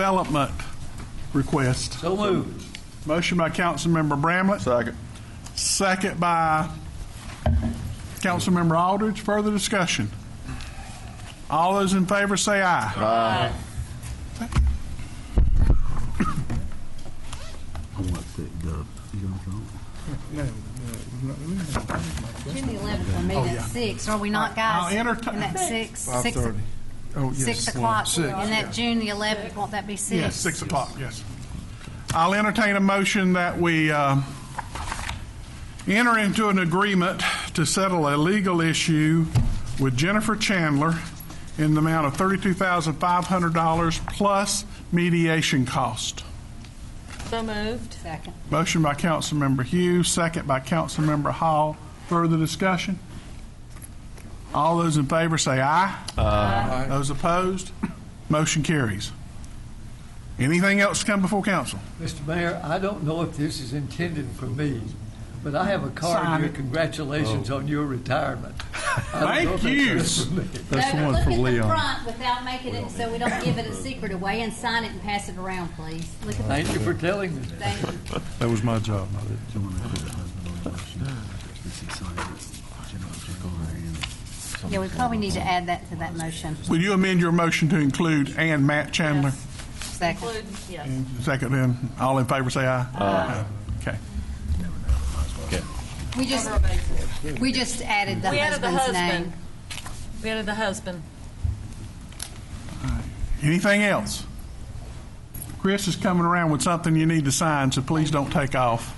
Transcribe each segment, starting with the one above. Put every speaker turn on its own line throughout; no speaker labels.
Development request.
So moved.
Motion by Councilmember Bramlett.
Second.
Second by Councilmember Aldridge. Further discussion? All those in favor say aye. Aye.
June the 11th, we meet at six. are we not, guys?
I'll entertain-
Isn't that six? Six o-
Oh, yes.
Six o'clock,
Six.
and that June the 11th, won't that be six?
Yes, 6 o'clock, yes. I'll entertain a motion that we uh, enter into an agreement to settle a legal issue with Jennifer Chandler in the amount of $32,500 plus mediation cost.
So moved.
Second.
Motion by Councilmember Hughes, second by Councilmember Hall. Further discussion? All those in favor say aye. Aye. Those opposed? Motion carries. Anything else to come before council?
Mr. Mayor, I don't know if this is intended for me, but I have a card
Sign
here,
it.
congratulations on your retirement. I don't know
Thank
if that's
you.
for me.
That's the
Doug,
one for
Look at
Leon.
the front without making it, so we don't give it a secret away, and sign it and pass it around, please. Look at the,
Thank you for telling me.
thank you.
That was my job.
Yeah, we probably need to add that to that motion.
Will you amend your motion to include and Matt Chandler?
Second.
Yes.
Second then, all in favor say aye. Aye. Okay.
We just, we just added the
We added the
husband's name.
husband. We added the husband.
Anything else? Chris is coming around with something you need to sign, so please don't take off.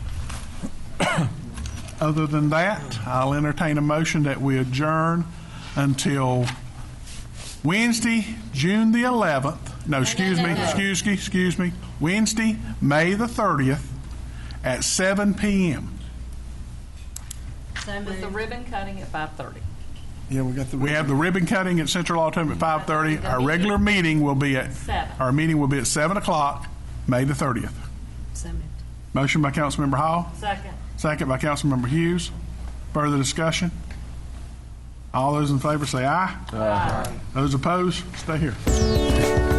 Other than that, I'll entertain a motion that we adjourn until Wednesday, June the 11th. No, excuse me, excuse me, excuse me. Wednesday, May the 30th at 7 PM.
With the ribbon cutting at 5:30.
Yeah, we got the.
We have the ribbon cutting at Central Auditorium at 5:30. Our regular meeting will be at,
Seven.
our meeting will be at 7 o'clock, May the 30th.
So moved.
Motion by Councilmember Hall,
Second.
second by Councilmember Hughes. Further discussion? All those in favor say aye. Aye. Those opposed, stay here.